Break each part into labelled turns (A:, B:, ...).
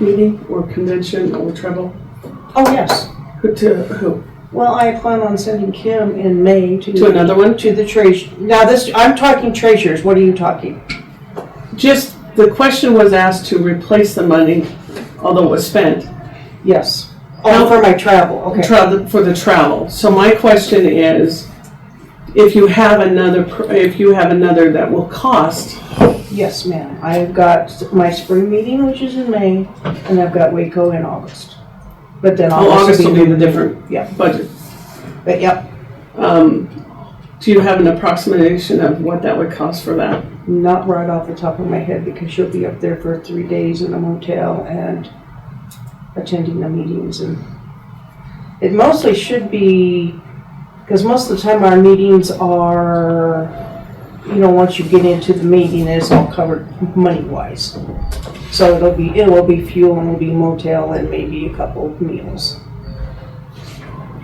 A: meeting or convention or travel?
B: Oh, yes.
A: Who to who?
B: Well, I plan on sending Kim in May to.
A: To another one?
B: To the treas, now this, I'm talking treasures, what are you talking?
A: Just, the question was asked to replace the money, although it was spent,
B: Yes. Oh, for my travel, okay.
A: tra- for the travel. So my question is, if you have another, pr- if you have another that will cost,
B: Yes, ma'am. I've got my spring meeting, which is in May, and I've got Waco in August. But then
A: oh,
B: August
A: August will be the
B: different.
A: different
B: Yeah.
A: budget.
B: But yep,
A: Um, Do you have an approximation of what that would cost for that?
B: not right off the top of my head because she'll be up there for three days in a motel and attending the meetings and it mostly should be, because most of the time our meetings are, you know, once you get into the meeting, it's all covered money-wise. So it'll be, it will be fuel and it'll be motel and maybe a couple of meals.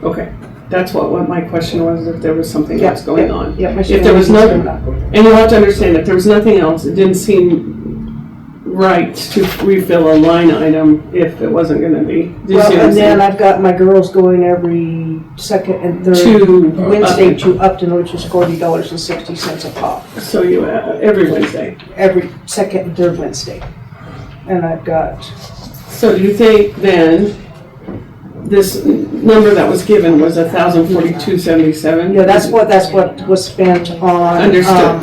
A: Okay, that's what, what my question was, if there was something
B: Yeah,
A: else going
B: yeah,
A: on.
B: yeah, my
A: If there was
B: meeting's
A: no-
B: coming up.
A: And you have to understand, if there was nothing else, it didn't seem right to refill a line item if it wasn't gonna be. Do you
B: Well,
A: see what I'm
B: and then
A: saying?
B: I've got my girls going every second and third.
A: To
B: uh, Wednesday to Upton, which is forty dollars and sixty cents a pop,
A: So you, uh, every Wednesday.
B: every second and third Wednesday. And I've got,
A: So do you think then, this number that was given was a thousand forty-two seventy-seven?
B: yeah, that's what, that's what was spent on. um,
A: Understood.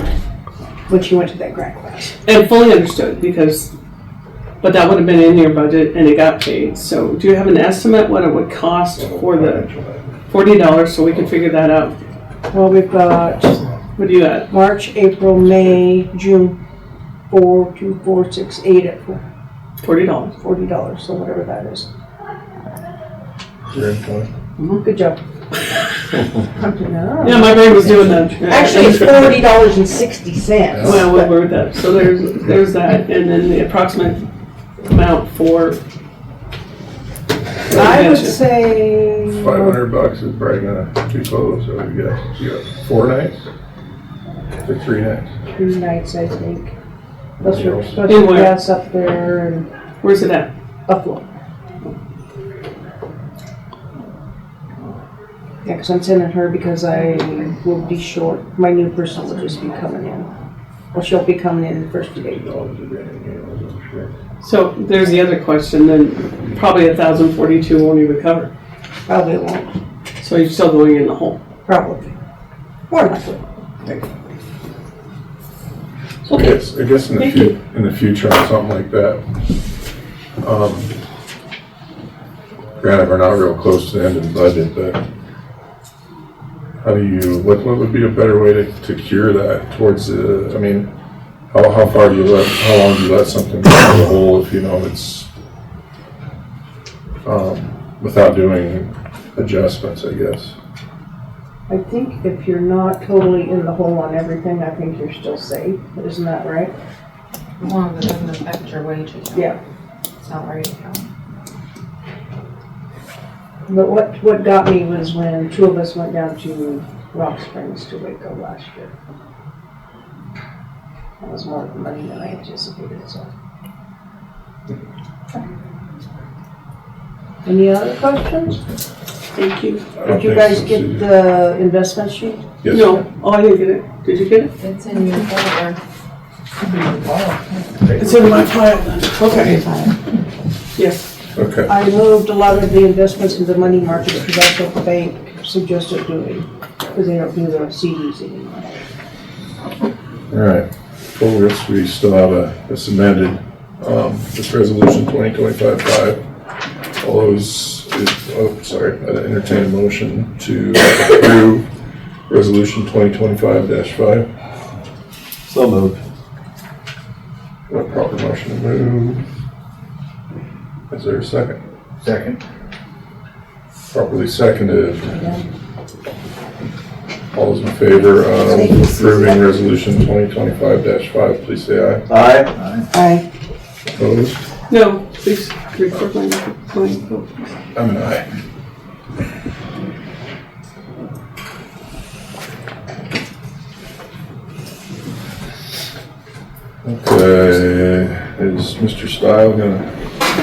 B: When she went to that grant class.
A: And fully understood, because, but that would have been in your budget and it got paid. So do you have an estimate what it would cost for the forty dollars, so we can figure that out?
B: Well, we've got
A: What do you at?
B: March, April, May, June, four, two, four, six, eight, at
A: Forty dollars.
B: forty dollars, so whatever that is.
C: Grand Con.
B: Good job. No.
A: Yeah, my brain was doing that. Yeah.
D: Actually, it's forty dollars and sixty cents.
A: Well, we'll work with that. So there's, there's that, and then the approximate amount for.
B: I would say.
C: Five hundred bucks is probably gonna be close, so we got, you got four nights? Or three nights?
B: two nights, I think. Those were, those
A: In
B: were
A: where?
B: gas up there in
A: Where's it at?
B: Buffalo. Yeah, because I'm sending her because I will be short. My new person will just be coming in. Well, she'll be coming in the first of April.
C: Dollars a day, you know, I'm sure.
A: So there's the other question, then probably a thousand forty-two won't even cover.
B: Probably won't,
A: So you're still going in the hole.
B: probably. More likely.
C: So I guess, I guess in the
A: Thank
C: fut, in the future, on something like that. um, Granted, we're not real close to the end of the budget, but how do you, what, what would be a better way to, to cure that towards the, I mean, how, how far do you let, how long do you let something go in the hole if you know it's, um, without doing adjustments, I guess?
B: I think if you're not totally in the hole on everything, I think you're still safe. Isn't that right?
E: Well, but it doesn't affect your wages.
B: Yeah.
E: Salary account.
B: But what, what got me was when two of us went down to Rock Springs to Waco last year. That was more money than I anticipated, so. Any other questions?
A: Thank you.
C: I don't
B: Did you
C: think
B: guys
C: so,
B: get
C: Susan.
B: the investment sheet?
C: Yes.
A: No, oh, I didn't get it. Did you get it?
E: It's in your folder.
A: It's in my pile then. Okay, yes.
C: Okay.
B: I moved a lot of the investments into money markets because that's what the bank suggested doing, because they don't do the CDs anymore.
C: All right, full risk, we still have a, it's amended, um, this resolution twenty twenty-five five. All those, is- oh, sorry, I entertain a motion to approve resolution twenty twenty-five dash five.
F: So moved.
C: A proper motion to move. Is there a second?
F: Second.
C: Properly seconded. All those in favor of approving resolution twenty twenty-five dash five, please say aye.
F: Aye. Aye.
B: I
C: Opposed?
A: No, please record my, my vote.
C: I'm an aye. Okay, is Mr. Style gonna